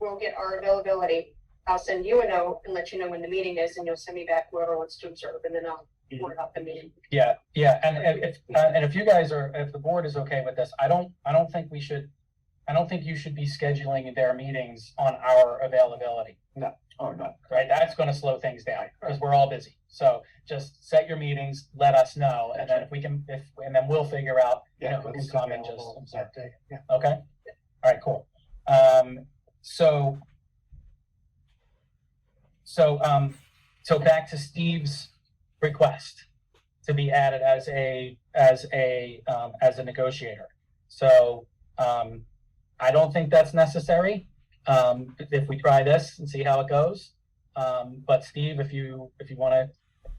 we'll get our availability. I'll send you a note and let you know when the meeting is, and you'll send me back whoever wants to observe, and then I'll Mhm. work out the meeting. Yeah, yeah, and and if, uh, and if you guys are, if the board is okay with this, I don't, I don't think we should, I don't think you should be scheduling their meetings on our availability, Oh, no. right? That's gonna slow things down, because we're all busy. So just set your meetings, let us know, and then if we can, if, and then we'll figure out, you know, who can come and just observe. Yeah. Okay, all right, cool. Um, so. So, um, so back to Steve's request to be added as a, as a, um, as a negotiator. So, um, I don't think that's necessary, um, if we try this and see how it goes. Um, but Steve, if you, if you wanna,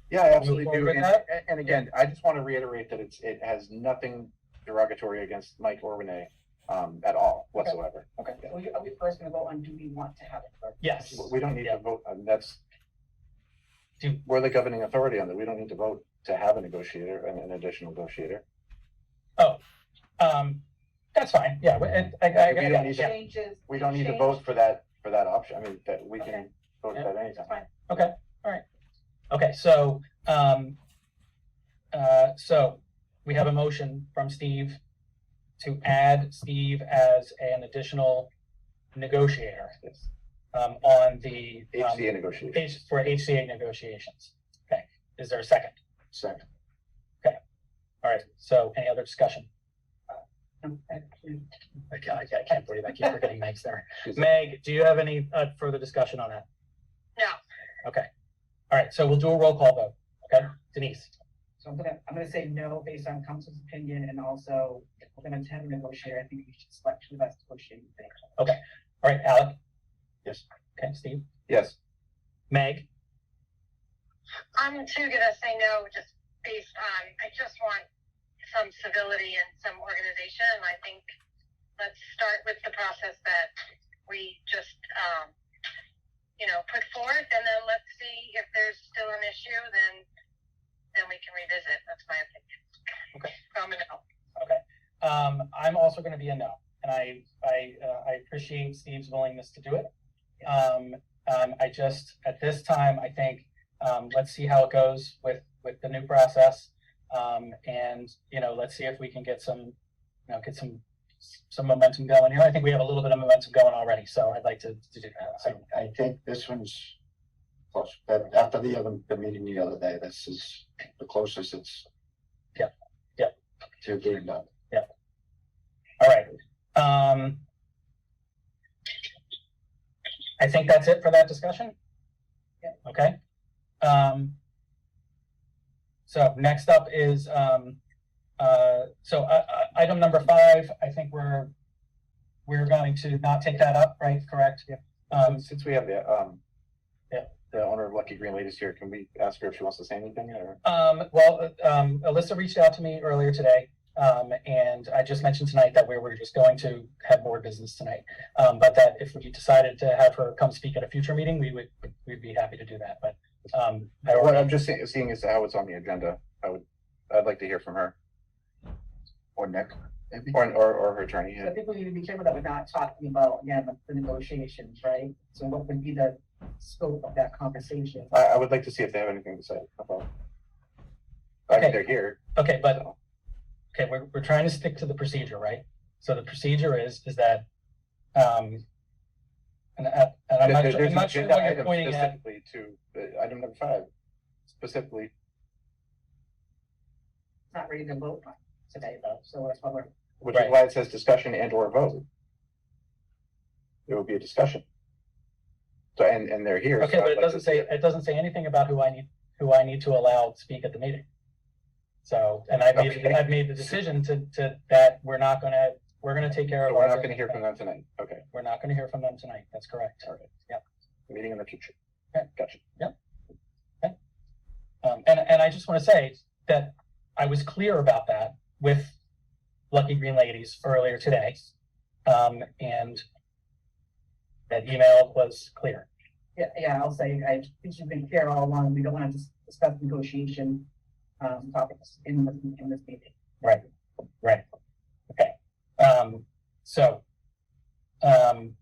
Yeah, I absolutely forward do. with And, that? and again, I just want to reiterate that it's, it has nothing derogatory against Mike or Renee, um, at all whatsoever. Okay, Yeah. well, you- are we first gonna vote on do we want to have it? or- yes, We don't need to Yeah. vote, I mean, that's, Do- we're the governing authority on that. We don't need to vote to have a negotiator, an, an additional negotiator. Oh, um, that's fine, yeah, and, I, I, We don't need to- yeah, Changes. We don't need to change- vote for that, for that option. I mean, that we can Okay. vote Yeah. that anytime. That's fine. okay, so, um, uh, so we have a motion from Steve to add Steve as an additional negotiator, Yes. um, on the, um, HCA negotiation. H, for HCA negotiations. Okay, is there a second? Second. All right, so any other discussion? Um, actually, I can't, I can't believe I keep forgetting Meg's there. Meg, do you have any, uh, further discussion on that? No. Okay, all right, so we'll do a roll call vote, okay? Denise? So I'm gonna, I'm gonna say no based on council's opinion and also if we're gonna have a negotiator, I think we should select two of us to negotiate. with them. All right, Alec? Yes. Okay, Steve? Yes. Meg? I'm too gonna say no, just based on, I just want some civility and some organization, and I think let's start with the process that we just, um, you know, put forth, and then let's see if there's still an issue, then, then we can revisit, that's my opinion. Okay. So I'm a no. Okay. Um, I'm also going to be a no, and I I uh, I appreciate Steve's willingness to do it. Um, um, I just at this time I think um, let's see how it goes with with the new process, um, and you know let's see if we can get some you know get some some momentum going here. I think we have a little bit of momentum going already, so I'd like to, to do that. So, I, I think this one's close, but after the other, the meeting the other day, this is the closest it's. Yep, yep. To being done. all right. Um, I think that's it for that discussion. Yeah. Okay. Um, so next up is, um, uh, so, uh, uh, item number five, I think we're, we're going to not take that up, right? Correct? Yeah. Um, Since we have the, um, Yeah. the owner of Lucky Green Ladies here, can we ask her if she wants to say anything or? Um, well, um, Alyssa reached out to me earlier today. Um, and I just mentioned tonight that we were just going to have board business tonight. Um, but that if we decided to have her come speak at a future meeting, we would, we'd be happy to do that, but, um, I What already, I'm just seeing, seeing is how it's on the agenda. I would, I'd like to hear from her Or Nick, maybe? or, or, or her attorney. So I think we need to be careful that we're not talking about, again, the- the negotiations, right? So what would be the scope of that conversation? I, I would like to see if they have anything to say about. I Okay. mean, they're here. okay, but, so. okay, we're, we're trying to stick to the procedure, right? So the procedure is, is that, um, and, I- and I'm There- not there's sure, I'm an not sure agenda what you're item pointing at. Specifically to, uh, item number five, specifically. It's Not ready to vote on today though, so that's why we're, which is Right. why it says discussion and or vote. There will be a discussion. So, and, and they're here. so Okay, I'd but it like doesn't to see say, it doesn't say anything about who I need, who I need to allow to speak at the meeting. So, and I've made, Okay. I've made the decision to, to, that we're not gonna, we're gonna take care So of. we're our- not gonna hear from them tonight, okay, We're not gonna hear from them tonight, that's correct. Yep. meeting in the future. Okay. Gotcha. Um, and, and I just wanna say that I was clear about that with Lucky Green Ladies earlier today. Um, and that email was clear. yeah, yeah, I'll say, I think you've been clear all along, we don't wanna dis- discuss negotiation um, topics in this, in this meeting. Right, right. Okay. Um, so, um,